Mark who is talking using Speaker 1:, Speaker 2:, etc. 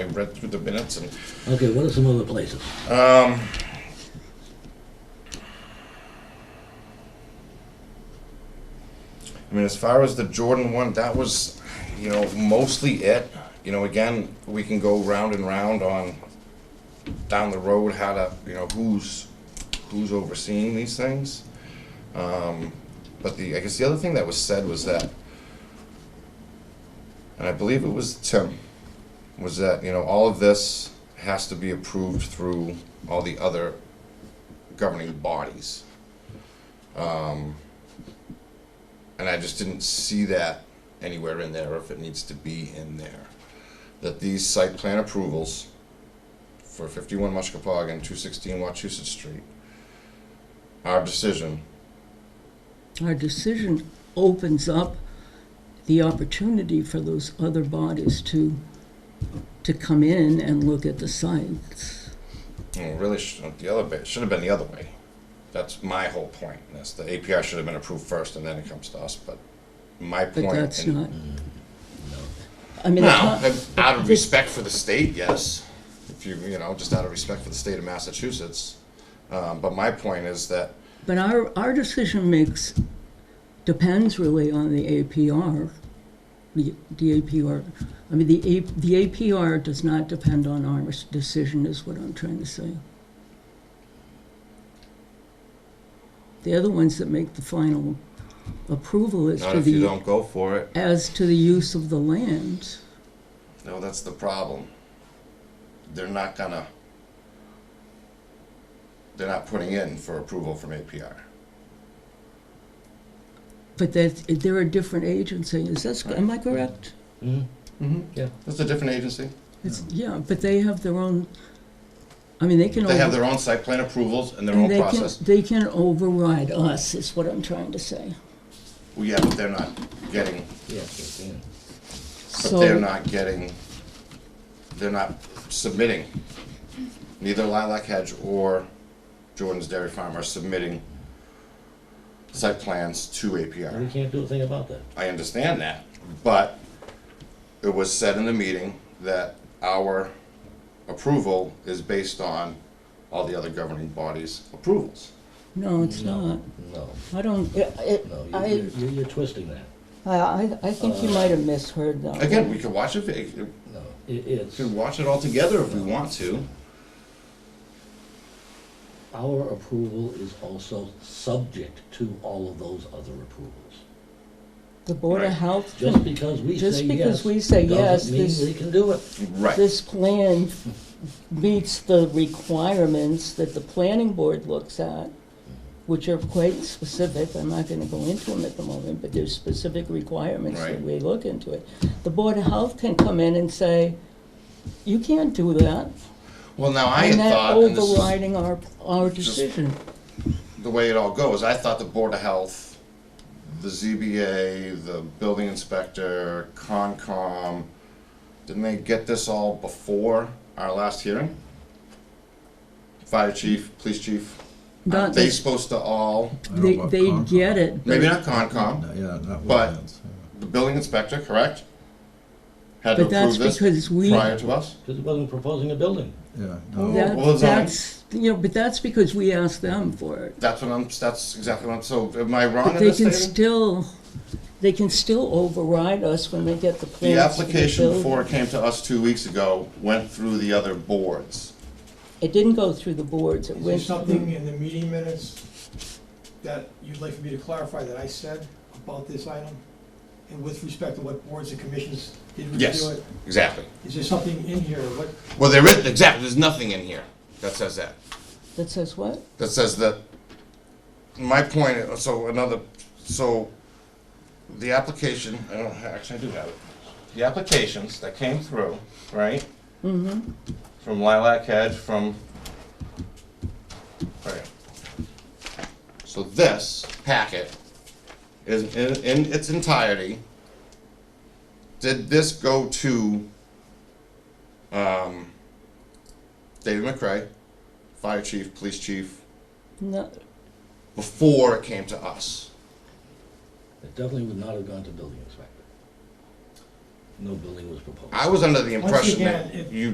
Speaker 1: read through the minutes and
Speaker 2: Okay, what are some other places?
Speaker 1: Um, I mean, as far as the Jordan one, that was, you know, mostly it. You know, again, we can go round and round on down the road how to, you know, who's who's overseeing these things. Um, but the I guess the other thing that was said was that, and I believe it was Tim was that, you know, all of this has to be approved through all the other governing bodies. Um, And I just didn't see that anywhere in there, if it needs to be in there. That these site plan approvals for fifty-one Mushkapog and two sixteen Wachusett Street, our decision,
Speaker 3: Our decision opens up the opportunity for those other bodies to, to come in and look at the sites.
Speaker 1: you know, really, sh- the other, bit- should have been the other way. That's my whole point, that's the API should have been approved first and then it comes to us, but my point.
Speaker 3: But that's
Speaker 1: in-
Speaker 3: not. I mean, the
Speaker 1: No,
Speaker 3: con-
Speaker 1: but out of respect for the state, yes. If you, you know, just out of respect for the state of Massachusetts. Um, but my point is that,
Speaker 3: but our, our decision makes, depends really on the APR. The, the APR, I mean, the, A- the APR does not depend on our decision is what I'm trying to say. They're the ones that make the final approval as
Speaker 1: not
Speaker 3: to
Speaker 1: if you
Speaker 3: the,
Speaker 1: don't go for it,
Speaker 3: as to the use of the land.
Speaker 1: no, that's the problem. They're not gonna, they're not putting in for approval from APR.
Speaker 3: But that, they're a different agency, is that, am I correct? Mm-hmm,
Speaker 2: Yeah.
Speaker 1: It's a different agency.
Speaker 3: It's, yeah, but they have their own, I mean, they can.
Speaker 1: They have
Speaker 3: over-
Speaker 1: their own site plan approvals and their
Speaker 3: And
Speaker 1: own
Speaker 3: they can-
Speaker 1: process.
Speaker 3: They can override us, is what I'm trying to say.
Speaker 1: Well, yeah, but they're not getting,
Speaker 2: Yeah, sure can.
Speaker 1: but they're
Speaker 3: So,
Speaker 1: not getting, they're not submitting. Neither Lilac Hedge or Jordan's Dairy Farm are submitting site plans to
Speaker 2: We
Speaker 1: APR.
Speaker 2: can't do a thing about that.
Speaker 1: I understand that, but it was said in the meeting that our approval is based on all the other governing bodies' approvals.
Speaker 3: no, it's
Speaker 2: No.
Speaker 3: not.
Speaker 2: No,
Speaker 3: I don't, I-
Speaker 2: no,
Speaker 3: I,
Speaker 2: you're, you're, you're twisting that.
Speaker 3: I, I, I think you might have misheard that.
Speaker 1: Again, we could watch it, we
Speaker 2: No, it, it's
Speaker 1: could watch it all together if we want to.
Speaker 2: our approval is also subject to all of those other approvals.
Speaker 3: The Board of
Speaker 1: Right.
Speaker 3: Health,
Speaker 2: Just because we
Speaker 3: Just
Speaker 2: say yes,
Speaker 3: because we say yes,
Speaker 2: doesn't mean
Speaker 3: this-
Speaker 2: we can do it.
Speaker 1: Right,
Speaker 3: this plan meets the requirements that the planning board looks at, which are quite specific, I'm not gonna go into them at the moment, but there's specific requirements that
Speaker 1: Right.
Speaker 3: we look into it. The Board of Health can come in and say, you can't do that,
Speaker 1: well, now I had
Speaker 3: and that
Speaker 1: thought, and this is-
Speaker 3: overriding our, our decision.
Speaker 1: the way it all goes, I thought the Board of Health, the ZBA, the building inspector, Concom, didn't they get this all before our last hearing? Fire chief, police chief,
Speaker 3: Not,
Speaker 1: aren't they
Speaker 3: they,
Speaker 1: supposed to all,
Speaker 4: I don't
Speaker 3: they
Speaker 4: know about
Speaker 3: they
Speaker 4: Concom.
Speaker 3: get it,
Speaker 1: maybe not Concom,
Speaker 4: No, Yeah, not
Speaker 1: But-
Speaker 4: wetlands. yeah.
Speaker 1: the building inspector, correct? Had to
Speaker 3: but that's
Speaker 1: approve this
Speaker 3: because we.
Speaker 1: prior to us?
Speaker 2: Because it wasn't proposing a building.
Speaker 4: Yeah,
Speaker 3: Well,
Speaker 4: no,
Speaker 3: that-
Speaker 1: well, it's on-
Speaker 3: that's, you know, but that's because we asked them for it.
Speaker 1: That's what I'm, that's exactly what I'm, so am I wrong
Speaker 3: But
Speaker 1: in
Speaker 3: they
Speaker 1: this
Speaker 3: can
Speaker 1: statement?
Speaker 3: still, they can still override us when they get the
Speaker 1: The
Speaker 3: plans. for
Speaker 1: application
Speaker 3: building.
Speaker 1: before it came to us two weeks ago went through the other boards.
Speaker 3: It didn't go through the boards, it
Speaker 5: Is there
Speaker 3: went
Speaker 5: something
Speaker 3: through,
Speaker 5: in the meeting minutes that you'd like for me to clarify that I said about this item? And with respect to what boards and commissions did
Speaker 1: Yes.
Speaker 5: review it?
Speaker 1: Exactly.
Speaker 5: Is there something in here, what,
Speaker 1: Well, there is, exactly, there's nothing in here that says that.
Speaker 3: that says what?
Speaker 1: That says that, my point, so another, so the application, I don't, actually, I do have it. The applications that came through, right,
Speaker 3: Mm-hmm,
Speaker 1: from Lilac Hedge, from, right. So this packet is, in, in its entirety, did this go to, um, David McCray, fire chief, police chief,
Speaker 3: no,
Speaker 1: before it came to us.
Speaker 2: It definitely would not have gone to building inspector. No building was proposed.
Speaker 1: I was under the
Speaker 5: Once
Speaker 1: impression
Speaker 5: again,
Speaker 1: that
Speaker 5: if-
Speaker 1: you